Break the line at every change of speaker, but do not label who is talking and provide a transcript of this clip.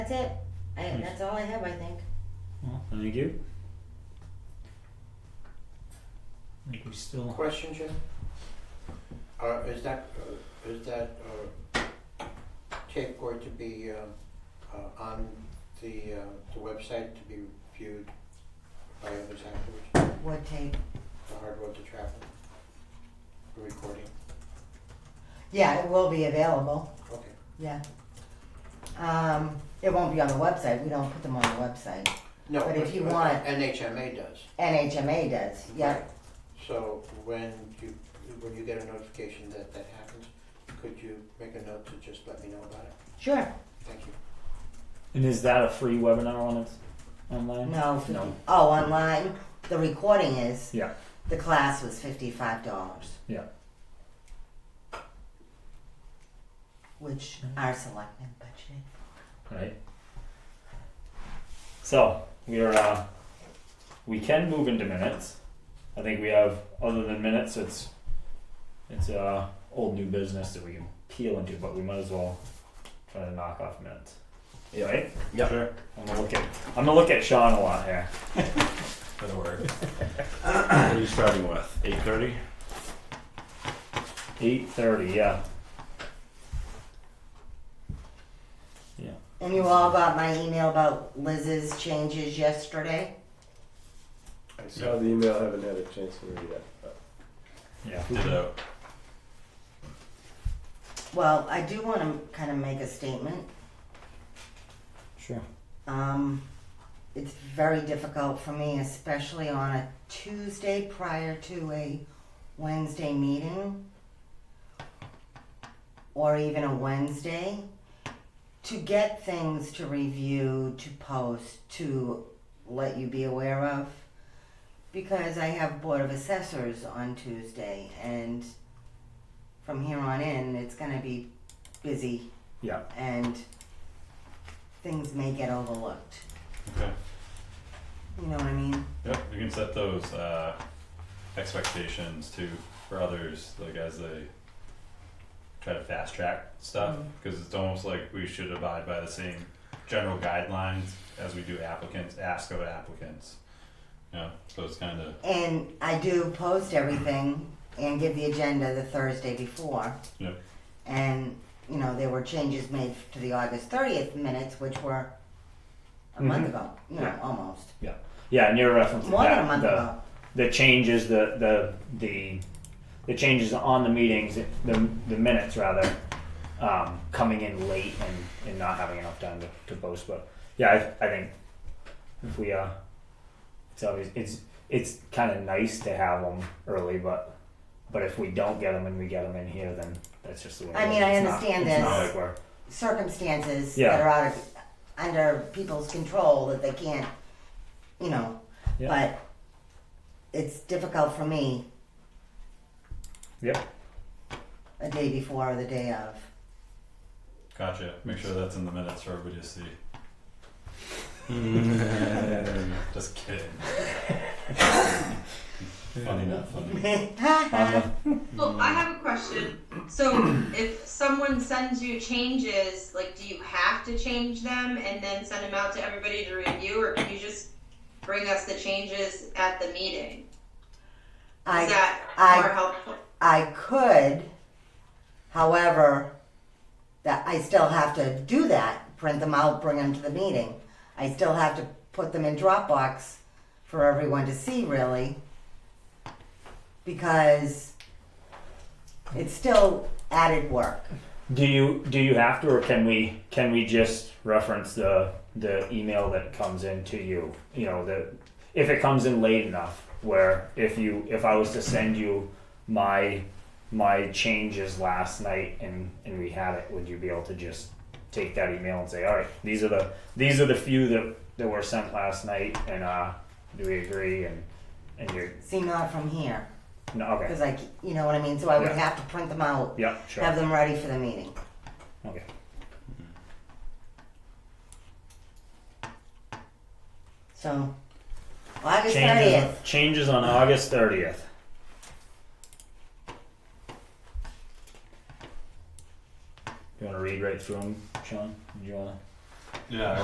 that's it. I,
Hmm.
that's all I have, I think.
Well, thank you. I think we still,
Question, Jim? Uh, is that, uh, is that, uh, tape going to be, um, uh, on the, uh, the website to be viewed by others afterwards,
What tape?
the hard road to travel? The recording,
Yeah, it will be available.
okay.
Yeah. Um, it won't be on the website. We don't put them on the website.
No,
But
but,
if you
but
want-
NHMA does.
NHMA does. Yeah.
Right. So when you, when you get a notification that that happens, could you make a note to just let me know about it?
Sure.
Thank you.
and is that a free webinar on its online?
No. 50,
No.
Oh, online. The recording is.
Yeah.
The class was fifty-five dollars.
Yeah.
Which
Mm-hmm.
our selectmen budgeted.
Right. So we're uh, we can move into minutes. I think we have other than minutes, it's it's uh old new business that we can peel into, but we might as well try to knock off minutes. Yeah, right?
Yep.
Sure. I'm gonna look at I'm gonna look at Sean a lot here.
That'll work. what are you starting with? Eight thirty?
Eight thirty, yeah. Yeah.
And you all got my email about Liz's changes yesterday?
I see.
Saw the email, haven't had a chance to read it. but-
Yeah.
Ditto.
Well, I do want to kind of make a statement.
Sure.
Um, it's very difficult for me, especially on a Tuesday prior to a Wednesday meeting or even a Wednesday to get things to review, to post, to let you be aware of because I have Board of Assessors on Tuesday and from here on in it's going to be busy.
Yeah.
And things may get overlooked.
Okay.
You know what I mean?
Yep, you can set those uh expectations too for others, like as they try to fast track stuff, cause it's almost like we should abide by the same general guidelines as we do applicants, ask of applicants. Yeah, so it's kinda,
And I do post everything and give the agenda the Thursday before.
Yep.
And, you know, there were changes made to the August thirtieth minutes, which were a month
Mhm.
ago, you know, almost.
Yeah, and you're referencing
More
that,
than a month
the-
ago.
the changes, the the the the changes on the meetings, the the minutes rather, um, coming in late and, and not having enough time to, to post. But yeah, I, I think if we uh, it's always it's it's kind of nice to have them early, but but if we don't get them and we get them in here, then that's just the way. it
I mean,
is.
I
It's not-
understand
it's not
this.
like we're-
Circumstances
Yeah.
that are out of, under people's control that they can't, you know,
Yeah.
but it's difficult for me.
Yep.
A day before or the day of.
gotcha, make sure that's in the minutes for everybody to see, just kidding. Funny not funny. Mama.
Well, I have a question. So, if someone sends you changes, like, do you have to change them and then send them out to everybody to review, or can you just bring us the changes at the meeting?
I
Is that
I-
more helpful?
I could, however, that I still have to do that, print them out, bring them to the meeting. I still have to put them in Dropbox for everyone to see really because it's still added work.
Do you do you have to, or can we can we just reference the the email that comes in to you? You know, the if it comes in late enough, where if you if I was to send you my my changes last night and and we had it, would you be able to just take that email and say, all right, these are the these are the few that that were sent last night, and uh, do we agree? And and you're
See, not from here
no, okay,
because I, c- you know what I mean. So I would
Yeah.
have to print them out,
yeah, sure,
have them ready for the meeting.
okay,
So August
changes
thirtieth.
changes on August thirtieth. You want to read right through them, Sean? Do you want to?
Yeah,